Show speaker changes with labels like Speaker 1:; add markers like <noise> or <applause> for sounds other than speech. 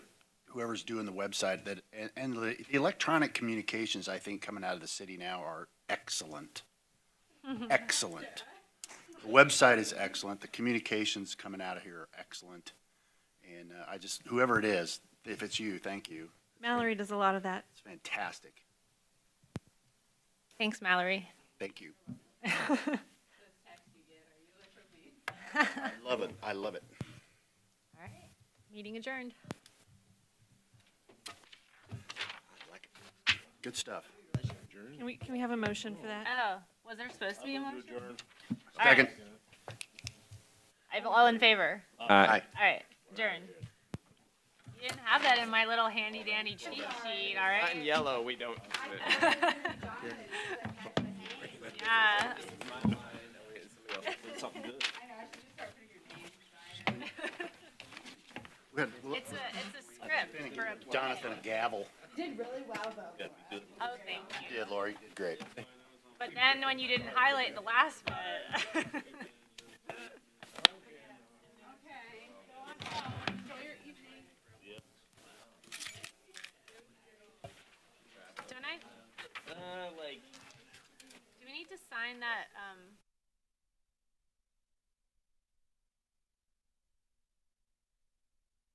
Speaker 1: whoever's doing the website that, and, and the the electronic communications, I think, coming out of the city now are excellent. Excellent. The website is excellent. The communications coming out of here are excellent. And uh, I just, whoever it is, if it's you, thank you.
Speaker 2: Mallory does a lot of that.
Speaker 1: It's fantastic.
Speaker 2: Thanks, Mallory.
Speaker 1: Thank you. I love it. I love it.
Speaker 2: All right, meeting adjourned.
Speaker 1: I like it. Good stuff.
Speaker 2: Can we, can we have a motion for that?
Speaker 3: Oh, was there supposed to be a motion? All right.
Speaker 1: Second.
Speaker 3: I'm all in favor.
Speaker 1: Aye.
Speaker 3: All right, adjourn. You didn't have that in my little handy dandy cheat sheet, all
Speaker 4: Not in
Speaker 3: right?
Speaker 4: yellow, we don't.
Speaker 3: Yeah. <laughs>
Speaker 1: We had-
Speaker 3: It's a, it's a script for a.
Speaker 1: Jonathan a gavel.
Speaker 3: Oh, thank you.
Speaker 1: You did, Lori. You did Great.
Speaker 3: But then when you didn't highlight the last <laughs> one. Don't I,
Speaker 4: Uh, like,
Speaker 3: do we need to sign that, um?